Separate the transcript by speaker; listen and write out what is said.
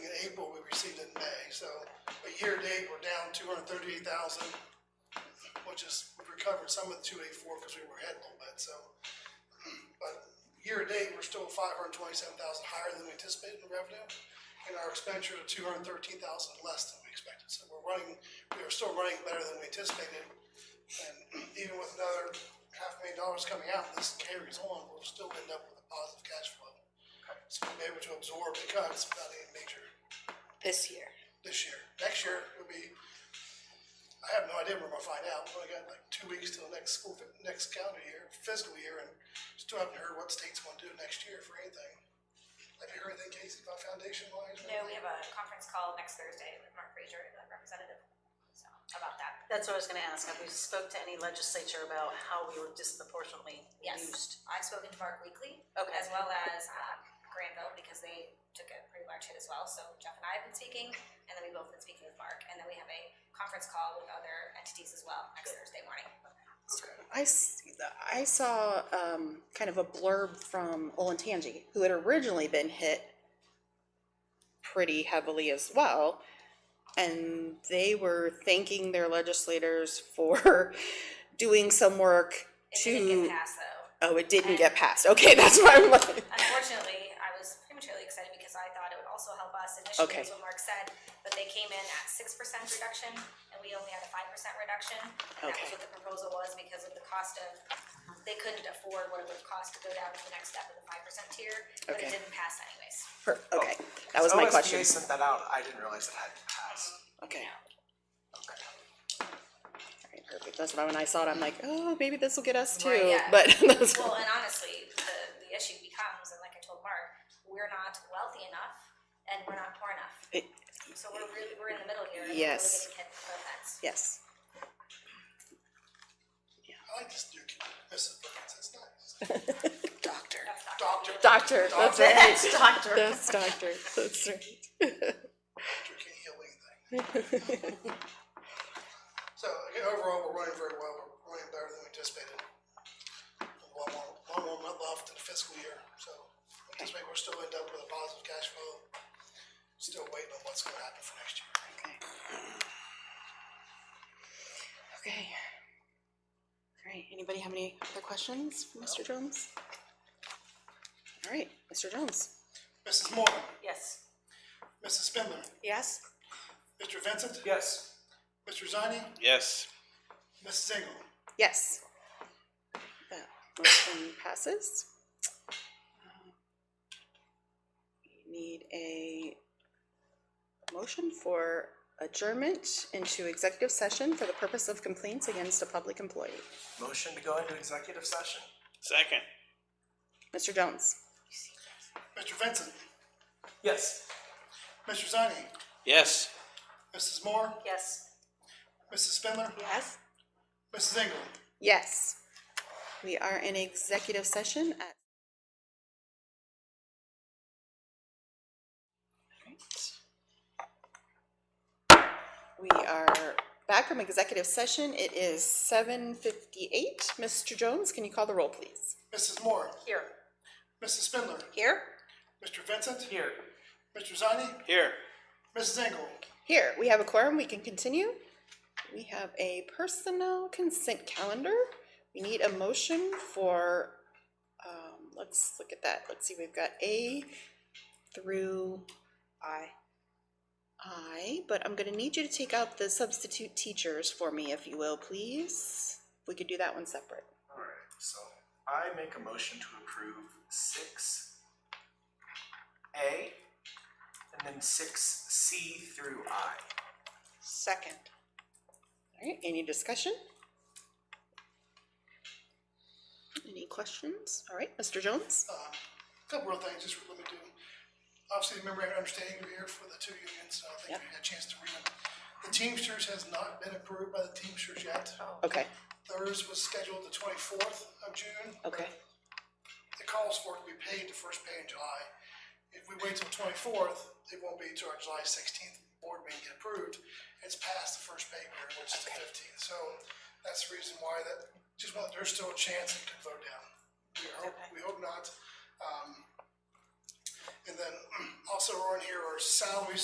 Speaker 1: year to date, we're down two hundred thirty-eight thousand, which is, we recovered some of the two eighty-four because we were ahead a little bit, so. But year to date, we're still five hundred twenty-seven thousand higher than we anticipated in revenue, and our expenditures are two hundred thirteen thousand less than we expected. So we're running, we are still running better than we anticipated, and even with another half million dollars coming out, this carries on, we'll still end up with a positive cash flow. So we'll be able to absorb the cuts without any major
Speaker 2: this year.
Speaker 1: this year. Next year will be, I have no idea when we're gonna find out. We've only got like two weeks till next school, next calendar year, fiscal year, and still haven't heard what state's gonna do next year for anything. Have you heard anything, Casey, about foundation wise?
Speaker 3: No, we have a conference call next Thursday with Mark Frazier, the representative, so, about that.
Speaker 4: That's what I was gonna ask, have we spoke to any legislature about how we were disproportionately
Speaker 3: Yes.
Speaker 4: used?
Speaker 3: I've spoken to Mark Weekly,
Speaker 4: Okay.
Speaker 3: as well as, um, Granville, because they took a pretty large hit as well, so Jeff and I have been speaking, and then we both been speaking with Mark, and then we have a conference call with other entities as well, next Thursday morning.
Speaker 5: I, s- I saw um, kind of a blurb from Olentangy, who had originally been hit pretty heavily as well. And they were thanking their legislators for doing some work
Speaker 3: It didn't
Speaker 5: to.
Speaker 3: get passed though.
Speaker 5: Oh, it didn't get passed. Okay, that's why I'm like.
Speaker 3: Unfortunately, I was prematurely excited because I thought it would also help us
Speaker 5: Okay.
Speaker 3: initially, is what Mark said, but they came in at six percent reduction, and we only had a five percent reduction. And that was
Speaker 5: Okay.
Speaker 3: what the proposal was because of the cost of, they couldn't afford what it would cost to go down to the next step of the five percent tier, but
Speaker 5: Okay.
Speaker 3: it didn't pass anyways.
Speaker 5: per- Okay, that
Speaker 6: Oh,
Speaker 5: was my question.
Speaker 6: OSBA sent that out, I didn't realize it hadn't passed.
Speaker 5: Okay. Alright, perfect. That's why when I saw it, I'm like, oh, maybe this will get us
Speaker 3: Right,
Speaker 5: too.
Speaker 3: yeah.
Speaker 5: But that's
Speaker 3: Well, and honestly, the, the issue becomes, and like I told Mark, we're not wealthy enough and we're not poor enough.
Speaker 5: It-
Speaker 3: So we're really, we're in the middle here, and we're really
Speaker 5: Yes.
Speaker 3: getting hit from both ends.
Speaker 5: yes.
Speaker 1: I like this new kid, Mrs. Burns, it's nice.
Speaker 5: Doctor.
Speaker 3: That's not-
Speaker 1: Doctor,
Speaker 5: Doctor. That's
Speaker 1: Doctor.
Speaker 5: right.
Speaker 4: Doctor.
Speaker 5: That's doctor. That's right.
Speaker 1: doctor can heal anything. So, again, overall, we're running very well, we're running better than we anticipated. One more, one more month left in the fiscal year, so we anticipate we'll still end up with a positive cash flow. Still waiting on what's gonna happen for next year.
Speaker 5: Okay. All right. Anybody have any other questions for Mr. Jones? All right, Mr. Jones.
Speaker 1: Mrs. Moore,
Speaker 4: Yes.
Speaker 1: Mrs. Spindler,
Speaker 5: Yes.
Speaker 1: Mr. Vincent,
Speaker 6: Yes.
Speaker 1: Mr. Zani,
Speaker 7: Yes.
Speaker 1: Mrs. Engel.
Speaker 5: Yes. That motion passes. Um, We Need a motion for adjournment into executive session for the purpose of complaints against a public employee.
Speaker 6: Motion to go into executive session.
Speaker 7: Second.
Speaker 5: Mr. Jones?
Speaker 1: Mr. Vincent,
Speaker 6: Yes.
Speaker 1: Mr. Zani,
Speaker 7: Yes.
Speaker 1: Mrs. Moore,
Speaker 4: Yes.
Speaker 1: Mrs. Spindler,
Speaker 5: Yes.
Speaker 1: Mrs. Engel.
Speaker 5: Yes. We are in executive session at. We are back from executive session. It is seven fifty-eight. Mr. Jones, can you call the roll, please?
Speaker 1: Mrs. Moore,
Speaker 4: Here.
Speaker 1: Mrs. Spindler,
Speaker 5: Here.
Speaker 1: Mr. Vincent,
Speaker 6: Here.
Speaker 1: Mr. Zani,
Speaker 7: Here.
Speaker 1: Mrs. Engel.
Speaker 5: Here, we have a quorum. We can continue. We have a personnel consent calendar. We need a motion for, um, let's look at that. Let's see, we've got A through I. I, but I'm gonna need you to take out the substitute teachers for me, if you will, please. We could do that one separate.
Speaker 6: Alright, so I make a motion to approve six A and then six C through I.
Speaker 5: Second. All right, any discussion? Any questions? All right, Mr. Jones?
Speaker 1: Um, Couple of things, just let me do. Obviously, remember, I understand you're here for the two unions, so I think
Speaker 5: Yep.
Speaker 1: you had a chance to read them. The Teamsters has not been approved by the Teamsters yet.
Speaker 5: Okay,
Speaker 1: Theirs was scheduled the twenty-fourth of June.
Speaker 5: okay.
Speaker 1: It calls for it to be paid the first pay in July. If we wait till twenty-fourth, it won't be to our July sixteenth board meeting get approved. It's past the first pay period, which is the fifteenth, so that's the reason why that, just want, there's still a chance it could vote down. We hope, we hope not. Um, And then also on here are salaries